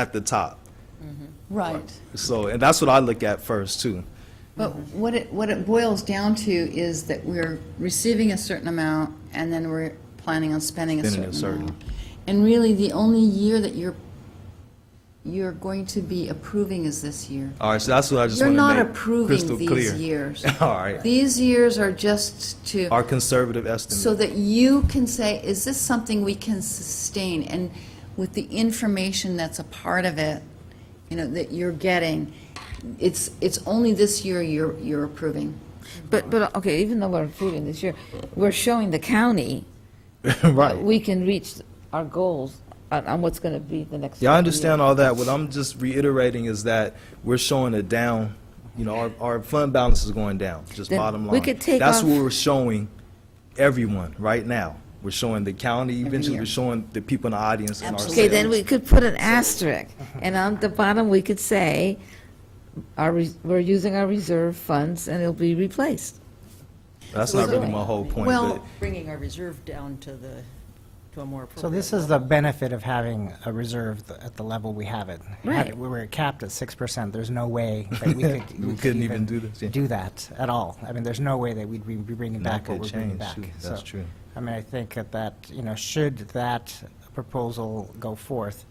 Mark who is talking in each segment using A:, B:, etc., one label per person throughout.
A: at the top.
B: Right.
A: So, and that's what I look at first too.
B: But what it, what it boils down to is that we're receiving a certain amount, and then we're planning on spending a
A: Spending a
B: certain
A: certain.
B: amount. And really, the only year that you're, you're going to be approving is this year.
A: All right, so that's what I just
B: You're
A: want to
B: not
A: make
B: approving
A: crystal
B: these
A: clear.
B: years.
A: All right,
B: These years are just to.
A: our conservative estimate.
B: So that you can say, is this something we can sustain? And with the information that's a part of it, you know, that you're getting, it's, it's only this year you're, you're approving.
C: But, but, okay, even though we're improving this year, we're showing the county
A: right.
C: that we can reach our goals on, on what's going to be the next.
A: Yeah, I
C: five
A: understand
C: years.
A: all that. What I'm just reiterating is that we're showing a down, you know, our, our fund balance is going down, just
C: Then
A: bottom
C: we
A: line.
C: could take
A: That's
C: off-
A: what we're showing everyone right now. We're showing the county, eventually
B: year.
A: we're showing the people in the audience and ourselves.
C: Okay, then we could put an asterisk, and on the bottom, we could say, our, res- we're using our reserve funds and it'll be replaced.
A: That's not really my whole point,
B: Well-
A: but
D: bringing our reserve down to the, to a more appropriate.
E: So this is the benefit of having a reserve th- at the level we have it. Had
C: Right.
E: it- We were capped at six percent, there's no way that we could.
A: We couldn't even do this, yeah.
E: Do that at all. I mean, there's no way that we'd be be bringing
A: That
E: back what
A: could
E: we're
A: change,
E: bringing back.
A: too. That's
E: So,
A: true.
E: I mean, I think that that, you know, should that proposal go forth,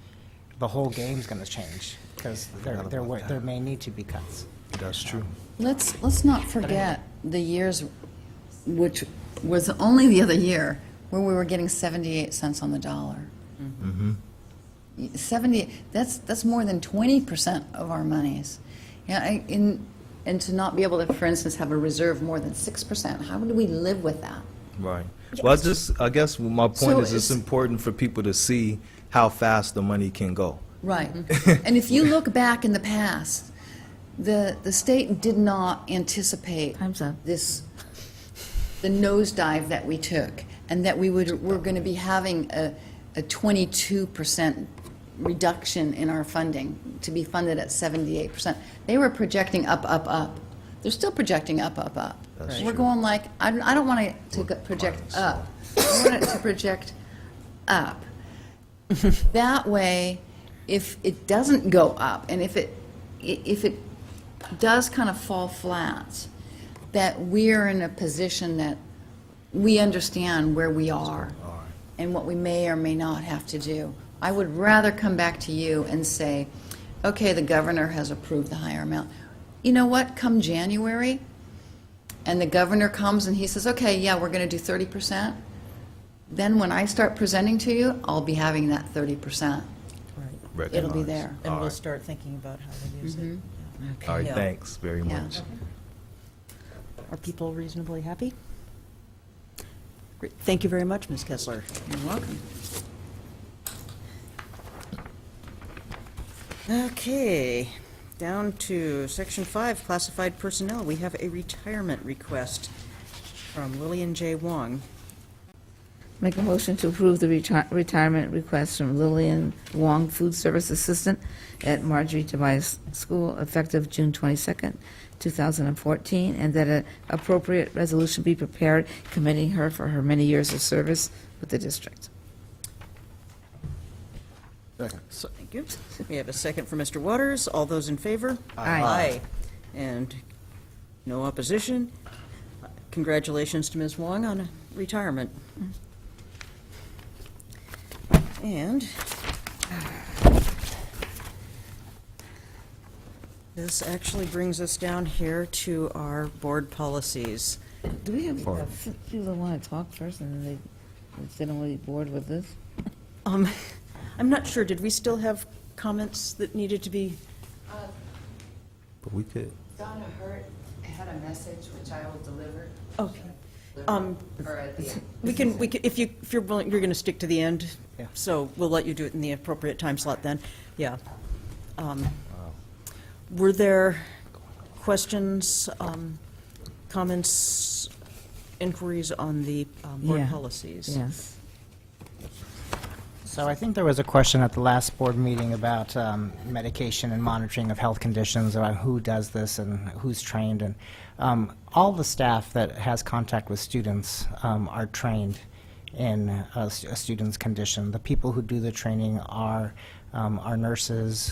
E: the whole game's gonna change, because there,
A: forgot
E: there,
A: about
E: wa-
A: that.
E: there may need to be cuts.
A: that's true.
B: Let's, let's not forget the years, which was only the other year, where we were getting 78 cents on the dollar. 70, that's, that's more than 20% of our monies. Yeah, I- in, and to not be able to, for instance, have a reserve more than 6%, how do we live with that?
A: Right. Well, I just, I guess my
B: So
A: point is it's
B: it's-
A: important for people to see how fast the money can go.
B: Right.
C: Mm-hmm.
B: And if you look back in the past, the, the state did not anticipate
C: Time's up.
B: this, the nosedive that we took, and that we would, we're going to be having a, a 22% reduction in our funding, to be funded at 78%. They were projecting up, up, up. They're still projecting up, up, up.
A: That's
B: We're
A: true.
B: going like, I don't, I don't want to project
A: minus.
B: up. I want it to project up. That way, if it doesn't go up, and if it, i- if it does kind of fall flat, that we're in a position that we understand where we are and what we may or may not have to do. I would rather come back to you and say, okay, the governor has approved the higher amount. You know what, come January, and the governor comes and he says, okay, yeah, we're going to do 30%, then when I start presenting to you, I'll be having that 30%.
D: Right.
B: It'll be
A: Recognize.
B: there.
D: And
A: All
D: we'll
A: right.
D: start thinking about how to use it.
B: Mm-hmm.
A: All right,
D: Yeah.
A: thanks very
B: Yeah.
A: much.
D: Are people reasonably happy? Great. Thank you very much, Ms. Kessler.
B: You're welcome.
D: Okay, down to section five, classified personnel. We have a retirement request from Lillian J. Wong.
C: Make a motion to approve the reti- retirement request from Lillian Wong, food service assistant at Marjorie Tobias School, effective June 22nd, 2014, and that an appropriate resolution be prepared commending her for her many years of service with the district.
D: Thank you. We have a second for Mr. Waters. All those in favor?
C: Aye.
D: Aye. And no opposition. Congratulations to Ms. Wong on retirement. And this actually brings us down here to our board policies.
C: Do we have uh, f- people that want to talk first, and then they, if they don't want to be bored with this?
D: Um, I'm not sure, did we still have comments that needed to be?
A: But we could.
F: Donna Hurt had a message which I will deliver
D: Okay. Oh, Um,
F: her at the end.
D: We can, we can, if you, if you're willing, you're going to stick to the end,
E: Yeah.
D: so we'll let you do it in the appropriate time slot then, yeah. Um, Were there questions, um, comments, inquiries on the um, board
C: Yeah.
D: policies?
C: Yes.
E: So I think there was a question at the last board meeting about um, medication and monitoring of health conditions, about who does this and who's trained. And um, all the staff that has contact with students um, are trained in a s- a student's condition. The people who do the training are um, our nurses,